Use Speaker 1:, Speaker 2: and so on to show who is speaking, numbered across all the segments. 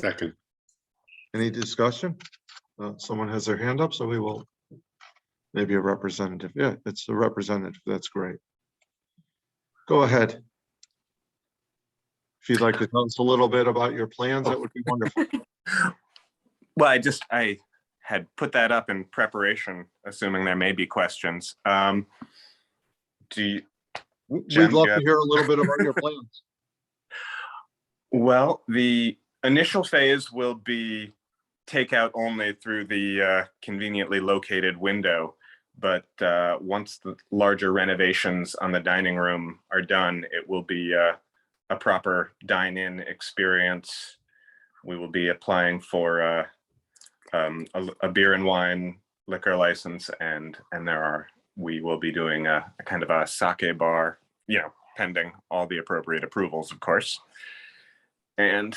Speaker 1: Second,
Speaker 2: Any discussion? Uh, someone has their hand up, so we will. Maybe a representative. Yeah, it's the representative. That's great. Go ahead. If you'd like to tell us a little bit about your plans, that would be wonderful.
Speaker 3: Well, I just, I had put that up in preparation, assuming there may be questions. Um, Do, you
Speaker 2: We'd
Speaker 3: Jen,
Speaker 2: love
Speaker 3: yeah.
Speaker 2: to hear a little bit about your plans.
Speaker 3: well, the initial phase will be takeout only through the uh, conveniently located window. But uh, once the larger renovations on the dining room are done, it will be uh, a proper dine-in experience. We will be applying for uh, um, a a beer and wine liquor license and, and there are, we will be doing a a kind of a sake bar, you know, pending all the appropriate approvals, of course. And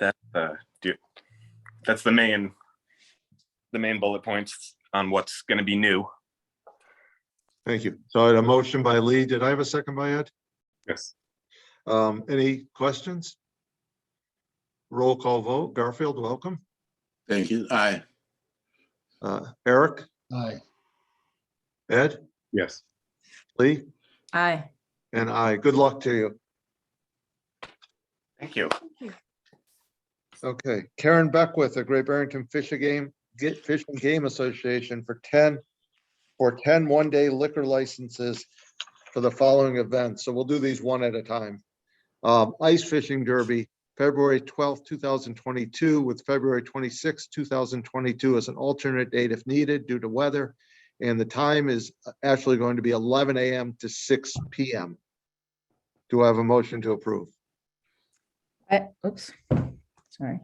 Speaker 3: that, uh, do, that's the main, the main bullet points on what's gonna be new.
Speaker 2: Thank you. So I had a motion by Lee. Did I have a second by Ed?
Speaker 1: yes,
Speaker 2: Um, any questions? Roll call vote. Garfield, welcome.
Speaker 4: Thank you. Aye.
Speaker 2: Uh, Eric,
Speaker 5: Aye.
Speaker 2: Ed,
Speaker 1: yes.
Speaker 2: Lee,
Speaker 6: Aye.
Speaker 2: and I. Good luck to you.
Speaker 3: Thank you.
Speaker 2: Okay, Karen Beckwith, the Great Barrington Fish and Game, Get Fish and Game Association for ten, for 10 one one-day liquor licenses for the following events. So we'll do these one at a time. Um, Ice Fishing Derby, February twelfth, two thousand twenty-two, with February twenty-sixth, two thousand twenty-two as an alternate date if needed due to weather. And the time is actually going to be eleven AM to six PM. Do I have a motion to approve?
Speaker 6: I, oops, sorry.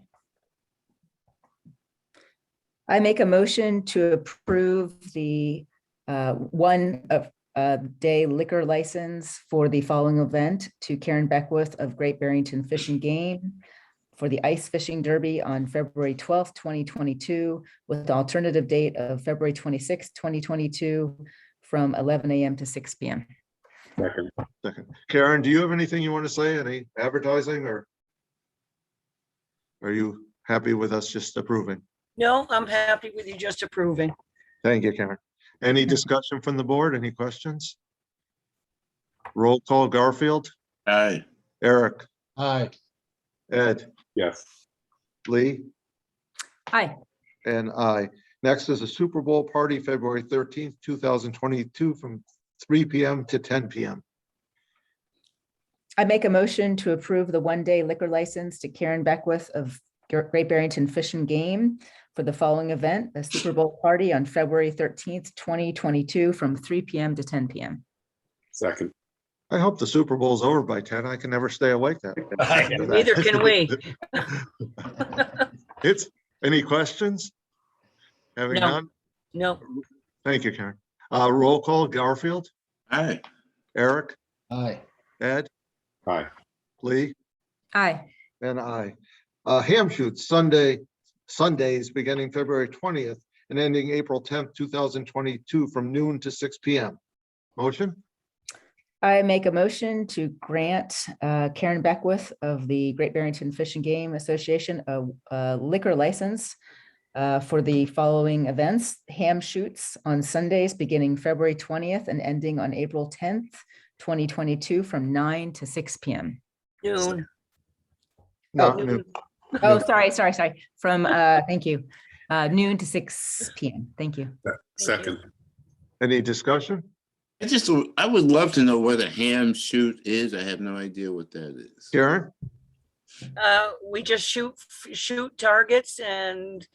Speaker 6: I make a motion to approve the uh, one of uh, day liquor license for the following event to Karen Beckwith of Great Barrington Fish and Game for the Ice Fishing Derby on February twelfth, twenty twenty-two, with the alternative date of February twenty-sixth, twenty twenty-two, from eleven AM to six PM.
Speaker 1: Second,
Speaker 2: Second. Karen, do you have anything you want to say? Any advertising or? Are you happy with us just approving?
Speaker 7: No, I'm happy with you just approving.
Speaker 2: Thank you, Karen. Any discussion from the board? Any questions? Roll call Garfield,
Speaker 4: Aye.
Speaker 2: Eric,
Speaker 5: Aye.
Speaker 2: Ed,
Speaker 1: yes.
Speaker 2: Lee,
Speaker 6: Aye.
Speaker 2: and I. Next is a Super Bowl party, February thirteenth, two thousand twenty-two, from three PM to ten PM.
Speaker 6: I make a motion to approve the one-day liquor license to Karen Beckwith of Gr- Great Barrington Fish and Game for the following event, the Super Bowl Party on February thirteenth, twenty twenty-two, from three PM to ten PM.
Speaker 1: Second,
Speaker 2: I hope the Super Bowl's over by ten. I can never stay awake that. late.
Speaker 7: Neither can we.
Speaker 2: It's, any questions? Having
Speaker 7: No.
Speaker 2: none?
Speaker 7: No,
Speaker 2: Thank you, Karen. Uh, roll call, Garfield,
Speaker 4: Aye.
Speaker 2: Eric,
Speaker 5: Aye.
Speaker 2: Ed,
Speaker 1: aye,
Speaker 2: Lee,
Speaker 6: Aye.
Speaker 2: and I. Uh, ham shoots Sunday, Sundays beginning February twentieth and ending April tenth, two thousand twenty-two from noon to six P M. Motion?
Speaker 6: I make a motion to grant uh, Karen Beckwith of the Great Barrington Fish and Game Association a a liquor license uh, for the following events, ham shoots on Sundays beginning February twentieth and ending on April tenth, twenty twenty-two, from nine to six PM.
Speaker 7: noon.
Speaker 2: Not
Speaker 7: noon.
Speaker 2: noon.
Speaker 6: Oh,
Speaker 2: No.
Speaker 6: sorry, sorry, sorry. From, uh, thank you, uh, noon to six PM. Thank you.
Speaker 1: second,
Speaker 2: Any discussion?
Speaker 4: I just, I would love to know what a ham shoot is. I have no idea what that is.
Speaker 2: Karen?
Speaker 7: Uh, we just shoot, shoot targets and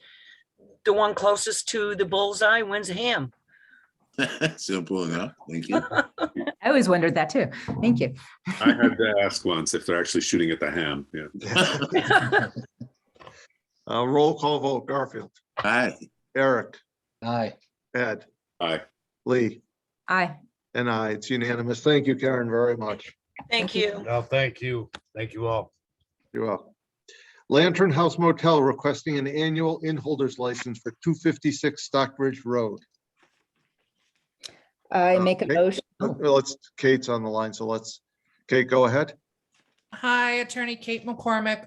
Speaker 7: the one closest to the bullseye wins a ham.
Speaker 4: Simple enough. Thank you.
Speaker 6: I always wondered that too. Thank you.
Speaker 1: I had to ask once if they're actually shooting at the ham, yeah.
Speaker 2: Uh, roll call vote, Garfield,
Speaker 4: Aye.
Speaker 2: Eric,
Speaker 5: Aye.
Speaker 2: Ed,
Speaker 1: Aye,
Speaker 2: Lee,
Speaker 6: Aye.
Speaker 2: and I. It's unanimous. Thank you, Karen, very much.
Speaker 7: Thank you.
Speaker 8: No, thank you. Thank you all.
Speaker 2: You're welcome. Lantern House Motel requesting an annual inholders license for two fifty-six Stockbridge Road.
Speaker 6: I make a
Speaker 2: Okay.
Speaker 6: motion.
Speaker 2: Uh, Let's, Kate's on the line, so let's, Kate, go ahead.
Speaker 9: Hi, Attorney Kate McCormick,